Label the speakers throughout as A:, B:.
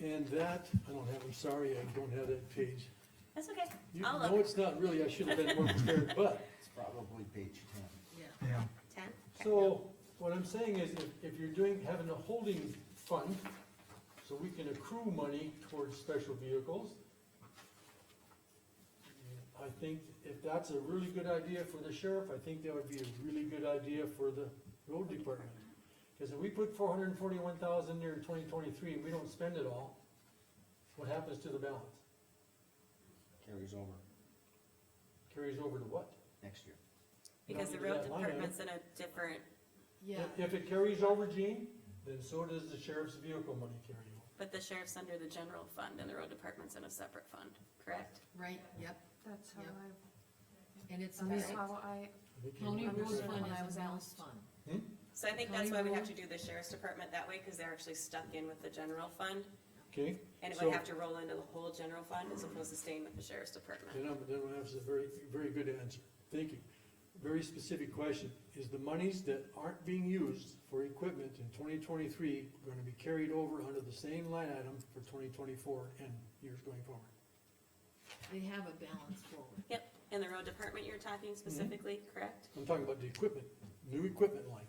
A: And that, I don't have, I'm sorry, I don't have that page.
B: That's okay.
A: You-
B: I'll
A: No,
B: look.
A: it's not really, I should have been more prepared, but,
C: It's probably page ten.
D: Yeah,
B: Ten?
A: so, what I'm saying is, if, if you're doing, having a holding fund, so we can accrue money towards special vehicles, I think if that's a really good idea for the sheriff, I think that would be a really good idea for the road department. Cause if we put four hundred and forty-one thousand there in twenty twenty-three, and we don't spend it all, what happens to the balance?
C: Carries over
A: Carries over to what?
C: next year.
B: Because the
A: Not
B: road
A: into that line item.
B: department's in a different,
E: Yeah,
A: If- If it carries over, Gene, then so does the sheriff's vehicle money carry over.
B: but the sheriff's under the general fund and the road department's in a separate fund, correct?
E: right, yep,
F: That's how
E: Yep.
F: I,
E: and it's
F: that's
E: separate.
F: how
A: I
F: I,
A: think you-
E: County road
F: Understood
E: fund
F: when I
E: is
F: was
E: a mills
F: asked.
E: fund.
B: So I think that's why we have to do the sheriff's department that way, cause they're actually stuck in with the general fund.
A: Okay,
B: And it
A: So-
B: would have to roll into the whole general fund as opposed to staying with the sheriff's department.
A: then I'm, then that's a very, very good answer. Thank you. Very specific question. Is the monies that aren't being used for equipment in twenty twenty-three gonna be carried over under the same line item for twenty twenty-four and years going forward?
E: They have a balance forward.
B: Yep, in the road department you're talking
A: Mm-hmm.
B: specifically, correct?
A: I'm talking about the equipment, new equipment line.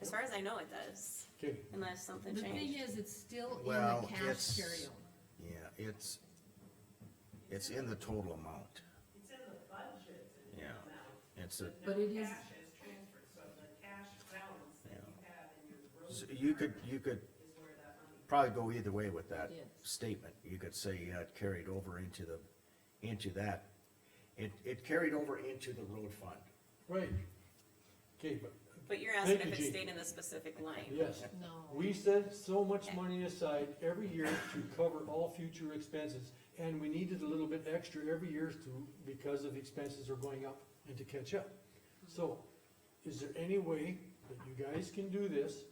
B: As far as I know, it does,
A: Okay,
B: unless something
E: The thing
B: changed.
E: is, it's still in
C: Well,
E: the cash
C: it's-
E: carryover.
C: Yeah, it's, it's in the total amount.
G: It's in the budget, it's in
C: Yeah.
G: the amount.
C: It's a,
E: But it is-
G: Cash is transferred, so the cash balance that you have in your road
C: so you could, you could
G: is where that money.
C: probably go either way with that
E: Yes.
C: statement. You could say uh, it carried over into the, into that. It, it carried over into the road fund.
A: right. Okay, but,
B: But you're asking
A: Thank
B: if
A: you,
B: it
A: Jean.
B: stayed in the specific line.
A: yes.
E: No,
A: We set so much money aside every year to cover all future expenses, and we needed a little bit extra every year to, because of the expenses are going up and to catch up. So, is there any way that you guys can do this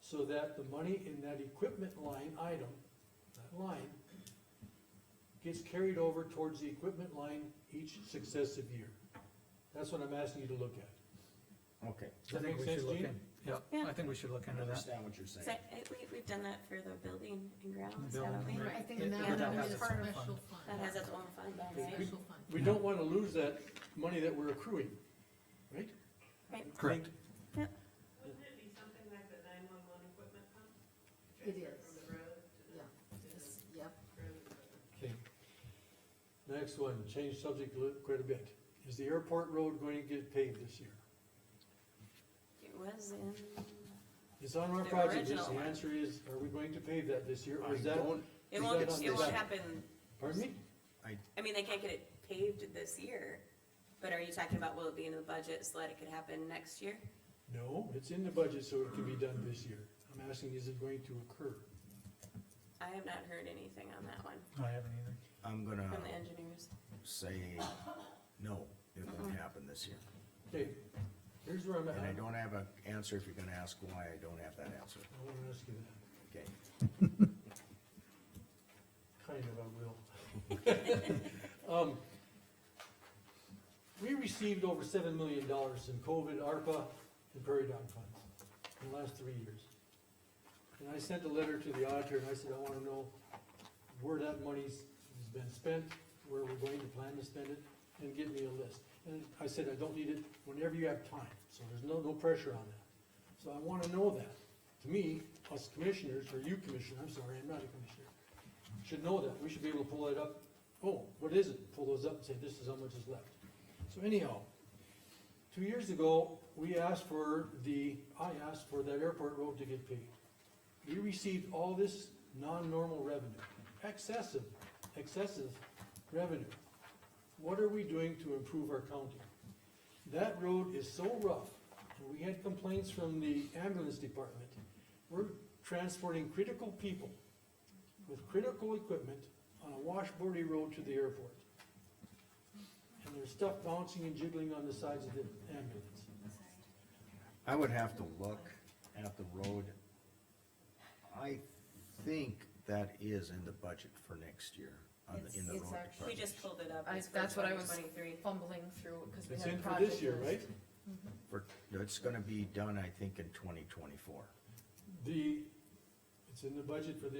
A: so that the money in that equipment line item, that line, gets carried over towards the equipment line each successive year? That's what I'm asking you to look at.
C: Okay.
A: Does
D: I
A: that make
D: think we should
A: sense,
D: look
A: Gene?
D: in, yeah, I think we should look
C: I
D: into that.
C: understand what you're
B: So
C: saying.
B: I- we, we've done that for the building and grounds,
D: The
B: haven't
D: building,
B: we?
D: right.
E: right,
D: it-
E: and that
D: it would
E: one
D: have
E: is
D: its own
E: special
D: fund.
B: That
E: fund,
B: has its own fund, right?
E: special fund.
A: We don't wanna lose that money that we're accruing, right?
B: Right.
D: Correct.
G: Wouldn't it be something like the nine-one-one equipment fund?
E: It
G: Transfer
E: is.
G: From the road to the.
E: Yeah.
G: to the
E: It's- Yep,
G: road equipment.
A: Okay. Next one, change subject li- quite a bit. Is the airport road going to get paved this year?
B: It was in,
A: It's on our
B: The
A: project list.
B: original
A: The
B: one.
A: answer is, are we going to pave that this year? Or is
C: I
A: that,
C: don't-
B: it
A: Is
B: won't,
A: that on
B: it
A: the
B: won't
A: back?
B: happen,
A: pardon me?
B: I mean, they can't get it paved this year, but are you talking about will it be in the budget so that it could happen next year?
A: No, it's in the budget, so it can be done this year. I'm asking, is it going to occur?
B: I have not heard anything on that one
D: I haven't either.
C: I'm gonna
B: from the engineers.
C: say, no, it won't happen this year.
A: Okay, here's where I'm at.
C: And I
A: I
C: don't have an answer if you're gonna ask why, I don't have that answer,
A: wanna ask you that.
C: okay?
A: Kind of, I will. Um, We received over seven million dollars in COVID, ARPA, and Prairie Dog funds in the last three years. And I sent a letter to the auditor, and I said, I wanna know where that money's has been spent, where we're going to plan to spend it, and give me a list. And I said, I don't need it whenever you have time, so there's no, no pressure on that. So I wanna know that. To me, us commissioners, or you commissioner, I'm sorry, I'm not a commissioner, should know that. We should be able to pull that up. Oh, what is it? Pull those up and say, this is how much is left. So anyhow, two years ago, we asked for the, I asked for that airport road to get paid. We received all this non-normal revenue, excessive, excessive revenue. What are we doing to improve our county? That road is so rough, and we had complaints from the ambulance department. We're transporting critical people with critical equipment on a washboardy road to the airport. And there's stuff bouncing and jiggling on the sides of the ambulance.
C: I would have to look at the road. I think that is in the budget for next year, on the, in the road
F: It's- it's actually-
B: We
C: department.
B: just pulled it up.
F: I-
B: It's for
F: that's what I was
B: 2023.
F: fumbling through, cause we
A: It's
F: had a
A: in for
F: project.
A: this year, right?
F: list.
C: For, it's gonna be done, I think, in twenty twenty-four.
A: The, it's in the budget for this